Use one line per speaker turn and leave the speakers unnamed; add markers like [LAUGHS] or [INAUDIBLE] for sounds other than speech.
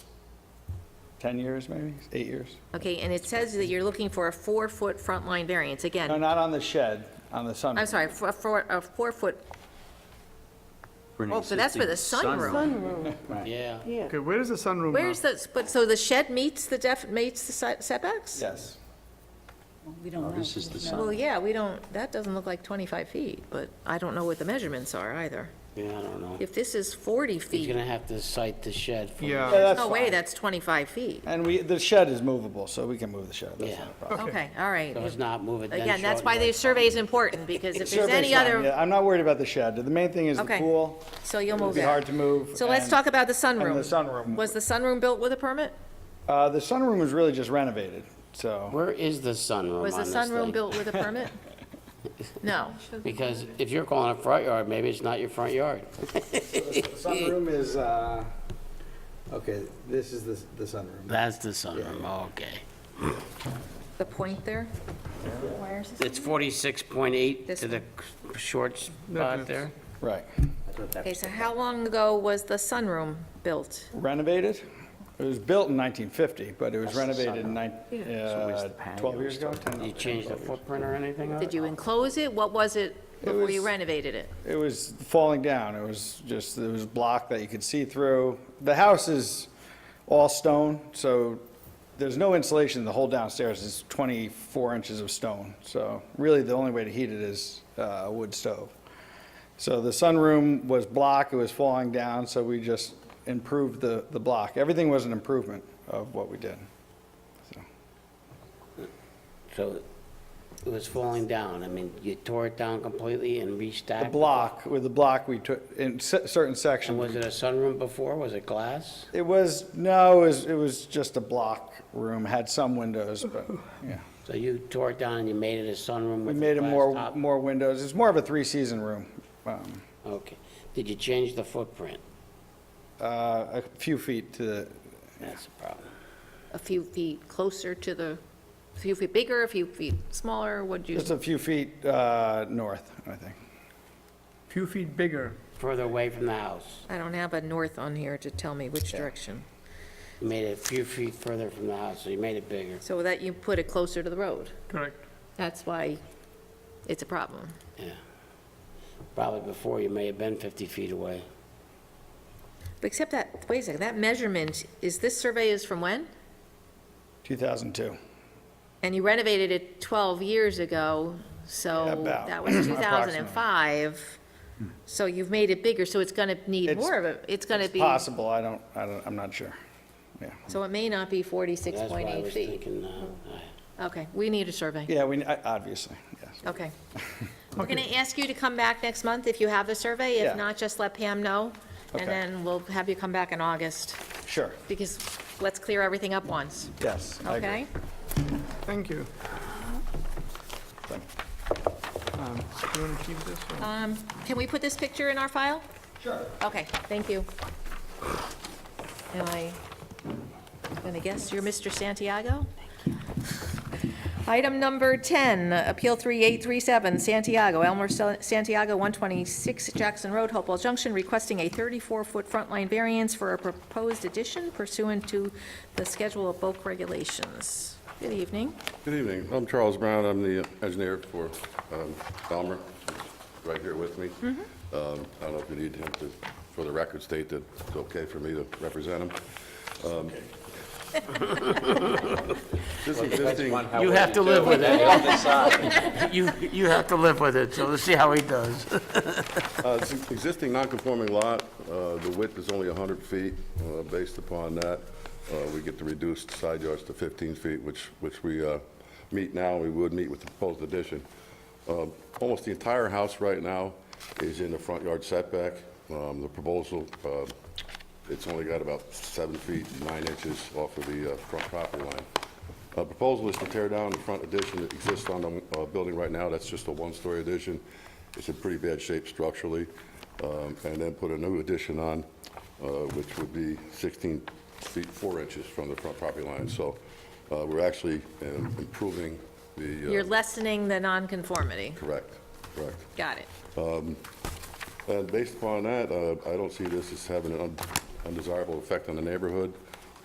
10 years maybe, eight years.
Okay, and it says that you're looking for a four-foot front line variance,
No,
again,
not on the shed, on the sunroom.
I'm sorry, for, for, a four-foot,
For an
oh, so that's for the
existing
sunroom.
Sunroom,
Yeah.
yeah.
Okay, where does the sunroom?
Where's the, but, so the shed meets the def, meets the si- setbacks?
Yes.
We don't
Oh, this is the sun.
Well, yeah, we don't, that doesn't look like 25 feet, but I don't know what the measurements are either.
Yeah, I don't know.
If this is 40
He's
feet,
gonna have to cite the shed for.
Yeah,
Yeah,
that's
no way
fine.
that's 25 feet.
And we, the shed is movable, so we can move the shed. That's
Yeah.
not a problem.
Okay, all right.
So it's not moving.
Again, that's why the survey's important, because if there's
Survey's
any
fine,
other,
yeah. I'm not worried about the shed. The main thing is the
Okay.
pool.
so you'll
It'll
move
be hard
that.
to move.
So let's
and-
talk about the
and
sunroom.
the sunroom.
Was the sunroom built with a permit?
Uh, the sunroom was really just renovated, so.
Where is the sunroom
Was the
on this
sunroom
thing?
built with a
[LAUGHS]
permit? No.
Because if you're calling it front yard, maybe it's not your front yard.
Sunroom is, uh, okay, this is the, the sunroom.
That's the sunroom, okay.
The point there?
It's forty-six point eight
This
to the c- short spot
that's-
there?
Right.
Okay, so how long ago was the sunroom built?
Renovated? It was built in 1950, but it was
the
renovated in nine,
So where's
uh,
the patio
12 years
still?
ago? 10,
You
12
change the
years.
footprint or anything on
Did
it?
you enclose it? What was Uh, it before
was-
you renovated it?
It was falling down. It was just, it was block that you could see through. The house is all stone, so there's no insulation. The whole downstairs is 24 inches of stone. So really, the only way to heat it is uh, a wood stove. So the sunroom was block, it was falling down, so we just improved the, the block. Everything was an improvement of what we did.
So it was falling down, I mean, you tore it down completely and restacked?
The
it?
block, with the block, we took, in cer- certain
And
sections, we
was it a sunroom before, was it glass?
It was, no, it was, it was just a block room, had some windows, but, yeah.
So you tore it down and you made it a sunroom
We
with
made it
a glass
more,
top?
more windows, it's more of a three-season room, um,
Okay, did you change the footprint?
uh, a few feet to, the
That's the problem.
A few feet closer to the, a few feet bigger, a few feet smaller? What'd you,
just a few feet uh, north, I think.
Few feet bigger.
Further away from the house,
I don't have a north on here to tell me which direction.
you made it a few feet further from the house, so you made it bigger.
So that you put it closer to the road.
Correct.
That's why it's a problem.
Yeah. Probably before, you may have been 50 feet away.
Except that, wait a second, that measurement, is this survey is from when?
2002,
And you renovated it 12 years ago, so
About, [CLEARS THROAT]
that was 2005. So you've made it bigger, so it's going to need
It's-
more of it. It's going to
It's
be,
possible, I don't, I don't, I'm not sure, yeah.
so it may not be
That's why I
46.8
was
feet.
thinking, uh, I-
Okay, we need a survey.
Yeah, we, I- obviously, yes. [LAUGHS]
Okay. We're going to ask you to come back next month if you have the survey. If
Yeah.
not, just let Pam know,
Okay.
and then we'll have you come back in August,
Sure,
because let's clear everything up once,
yes, I agree.
okay?
Thank you.
Thank
Um, do you want to keep this? or-
Um, Can we put this picture in our file?
Sure.
Okay, thank you. Am I going to guess you're Mr. Santiago? Item number 10, Appeal 3837, Santiago, Elmer Sa- Santiago, 126 Jackson Road, Hopewell Junction, requesting a 34-foot front line variance for a proposed addition pursuant to the Schedule of Bulk Regulations. Good evening.
Good evening. I'm Charles Brown. I'm the engineer for um, Dahmer, right here with me. Um, I don't know if you need him to, for the record state that it's okay for me to represent him. Um, This existing,
You have to live with it. You, you have to live with it, so let's see how he does.
uh, it's an existing non-conforming lot, Uh, the width is only 100 feet. Uh, Based upon that, uh, we get the reduced side yards to 15 feet, which, which we uh, meet now, we would meet with the proposed addition. Um, Almost the entire house right now is in the front yard setback. Um, The proposal, uh, it's only got about seven feet, nine inches off of the uh, front property line. Uh, Proposal is to tear down the front addition that exists on the uh, building right now. That's just a one-story addition. It's in pretty bad shape structurally. Um, And then put a new addition on, uh, which would be 16 feet, 4 inches from the front property line. So uh, we're actually um, improving the... uh,
You're lessening the nonconformity.
Correct, correct.
Got it.
And based upon that, uh, I don't see this as having an un- undesirable effect on the neighborhood.